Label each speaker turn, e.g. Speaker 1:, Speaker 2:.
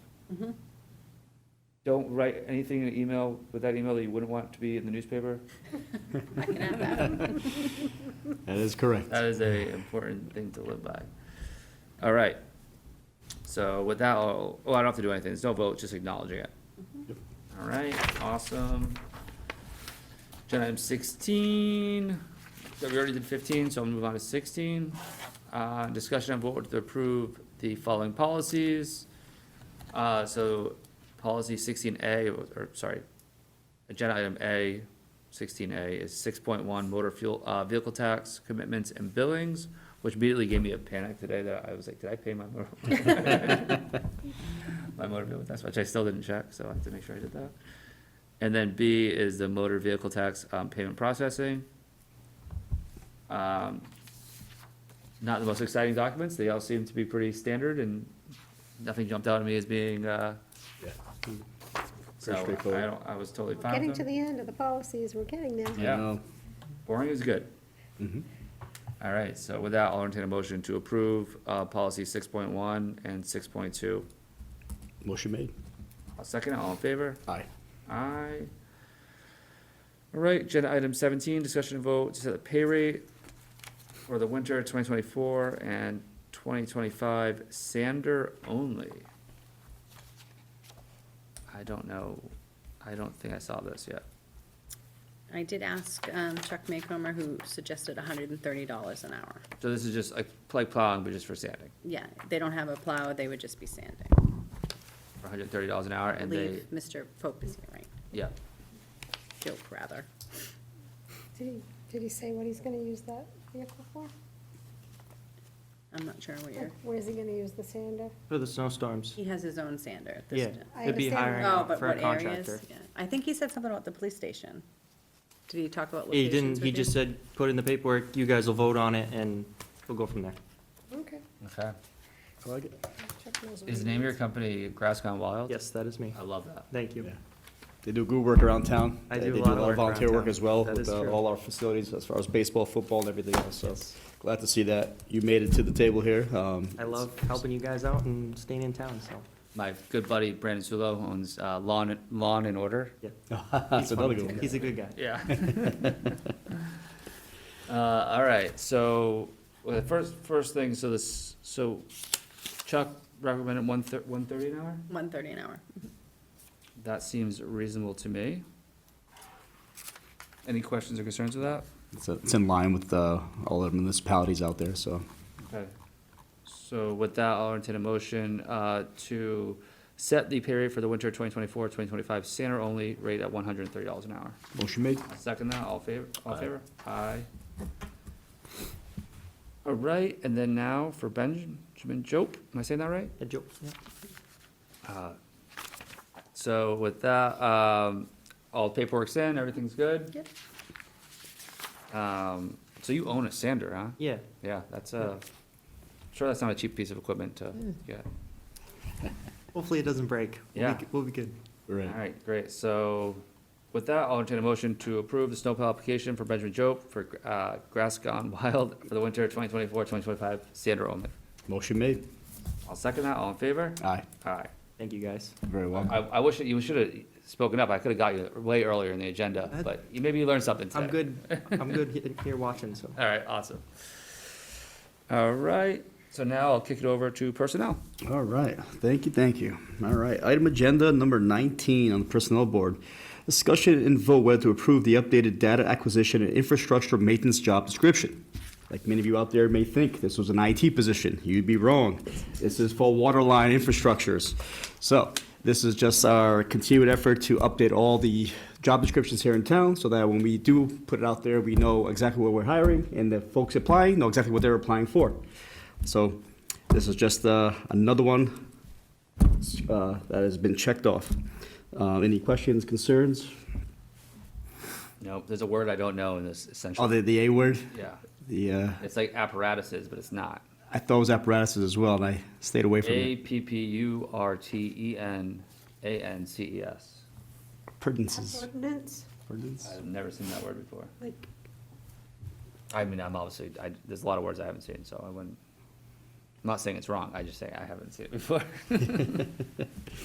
Speaker 1: Don't write anything in an email, with that email that you wouldn't want to be in the newspaper.
Speaker 2: I can add that.
Speaker 3: That is correct.
Speaker 1: That is a important thing to live by. All right. So with that, I'll- oh, I don't have to do anything. There's no vote, just acknowledging it. All right, awesome. Agenda item sixteen. So we already did fifteen, so I'll move on to sixteen. Uh, discussion on vote to approve the following policies. Uh, so policy sixteen A, or sorry, agenda item A, sixteen A, is six point one motor fuel, uh, vehicle tax commitments and billings, which immediately gave me a panic today that I was like, did I pay my motor? My motor vehicle tax, which I still didn't check, so I have to make sure I did that. And then B is the motor vehicle tax, um, payment processing. Um, not the most exciting documents, they all seem to be pretty standard and nothing jumped out at me as being, uh, so I
Speaker 3: straightforward.
Speaker 1: don't, I was totally fine with
Speaker 2: Getting
Speaker 1: them.
Speaker 2: to the end of the policies, we're getting there.
Speaker 1: Yeah.
Speaker 3: um,
Speaker 1: Boring is good. All right, so with that, I'll entertain a motion to approve, uh, policy six point one and six point two.
Speaker 3: Motion made.
Speaker 1: I'll second it, all in favor?
Speaker 3: Aye.
Speaker 1: Aye. All right, agenda item seventeen, discussion and vote to set the pay rate for the winter twenty twenty-four and twenty twenty-five sander only. I don't know, I don't think I saw this yet.
Speaker 4: I did ask um, Chuck Maycomer, who suggested hundred and thirty dollars an hour.
Speaker 1: So this is just like, like plowing, but just for sanding,
Speaker 4: Yeah, they don't have a plow, they would just be sanding.
Speaker 1: for hundred and thirty dollars an hour,
Speaker 4: I
Speaker 1: and they,
Speaker 4: believe Mr. Pope is here, right?
Speaker 1: yeah.
Speaker 4: Joke, rather.
Speaker 2: Did he, did he say what he's gonna use that vehicle for?
Speaker 4: I'm not sure what you're,
Speaker 2: Like, Where's he gonna use the sander?
Speaker 5: For the snowstorms.
Speaker 4: he has his own sander at
Speaker 5: Yeah,
Speaker 4: this. time.
Speaker 2: I
Speaker 5: it'd be
Speaker 2: understand.
Speaker 5: hiring
Speaker 4: Oh,
Speaker 5: out
Speaker 4: but
Speaker 5: for a
Speaker 4: what areas?
Speaker 5: contractor.
Speaker 4: Yeah. I think he said something about the police station. Did he talk about
Speaker 5: He
Speaker 4: locations
Speaker 5: didn't,
Speaker 4: with
Speaker 5: he
Speaker 4: you?
Speaker 5: just said, put in the paperwork, you guys will vote on it, and we'll go from there.
Speaker 2: Okay.
Speaker 1: Okay.
Speaker 3: I like it.
Speaker 2: Chuck knows what
Speaker 1: Is
Speaker 2: he
Speaker 1: the name of your
Speaker 2: needs.
Speaker 1: company Grass Gone Wild?
Speaker 5: Yes, that is me.
Speaker 1: I love that.
Speaker 5: Thank you.
Speaker 3: Yeah. They do good work around town.
Speaker 5: I
Speaker 3: They-
Speaker 5: do a
Speaker 3: they
Speaker 5: lot of work around
Speaker 3: volunteer work
Speaker 5: town.
Speaker 3: as well
Speaker 5: That
Speaker 3: with
Speaker 5: is
Speaker 3: uh,
Speaker 5: true.
Speaker 3: all our facilities as far as baseball, football, and everything else. So glad to see that you made it to the table here. Um,
Speaker 5: I love helping you guys out and staying in town, so.
Speaker 1: My good buddy Brandon Sulo owns uh, Lawn Lawn and Order.
Speaker 5: Ah,
Speaker 3: That's another good one.
Speaker 5: He's a good guy.
Speaker 1: Yeah. uh, all right. So well, the first first thing. So this. So Chuck recommended one thir- one thirty an hour.
Speaker 4: One thirty an hour.
Speaker 1: That seems reasonable to me. Any questions or concerns with that?
Speaker 3: It's, uh, It's in line with uh, all the municipalities out there, so.
Speaker 1: Okay. So with that, I'll entertain a motion uh, to set the pay rate for the winter 2024, 2025 Santa only rate at $130 an hour.
Speaker 3: Motion made.
Speaker 1: I'll Second that, all favor, all
Speaker 3: Aye.
Speaker 1: favor? Aye. All right, and then now for Benjamin Jope, am I saying that right?
Speaker 5: A joke, yeah.
Speaker 1: Uh, So with that, um, all the paperwork's in, everything's good?
Speaker 4: Yep.
Speaker 1: Um, So you own a sander, huh?
Speaker 5: Yeah,
Speaker 1: Yeah, that's a, sure that's not a cheap piece of equipment to
Speaker 5: Hmm.
Speaker 1: get.
Speaker 5: hopefully it doesn't break. We'll
Speaker 1: Yeah.
Speaker 5: be- We'll be good.
Speaker 1: All right, great. So with that, I'll entertain a motion to approve the snowplow application for Benjamin Jope for uh, grass gone wild for the winter 2024-2025 sander only.
Speaker 3: Motion made.
Speaker 1: I'll second that. All in favor?
Speaker 3: Aye.
Speaker 1: Aye.
Speaker 5: Thank you, guys.
Speaker 3: Very
Speaker 1: I,
Speaker 3: well.
Speaker 1: I wish that you should have spoken up. I could have got you way earlier in the agenda, but you- maybe you learned something today.
Speaker 5: I'm good, I'm good he- here watching, so.
Speaker 1: All right, awesome. All right, so now I'll kick it over to personnel.
Speaker 3: All right, thank you, thank you. All right, item agenda number 19 on the Personnel Board. Discussion and vote whether to approve the updated data acquisition and infrastructure maintenance job description. Like many of you out there may think, this was an IT position. You'd be wrong. This is for waterline infrastructures. So this is just our continued effort to update all the job descriptions here in town so that when we do put it out there, we know exactly what we're hiring and the folks applying know exactly what they're applying for. So this is just uh, another one uh, that has been checked off. Uh, Any questions, concerns?
Speaker 1: No, there's a word I don't know in this
Speaker 3: Oh,
Speaker 1: essentially.
Speaker 3: the, the A word?
Speaker 1: Yeah,
Speaker 3: The, uh,
Speaker 1: it's like apparatuses, but it's not.
Speaker 3: I thought it was apparatuses as well, and I stayed away from
Speaker 1: A
Speaker 3: it.
Speaker 1: P P U R T E N A N C E S.
Speaker 3: Appurtenances.
Speaker 2: Ordinance,
Speaker 3: Appurtenance?
Speaker 1: I've never seen that word before.
Speaker 2: like,
Speaker 1: I mean, I'm obviously, I, there's a lot of words I haven't seen, so I wouldn't, I'm not saying it's wrong, I just say I haven't seen it before.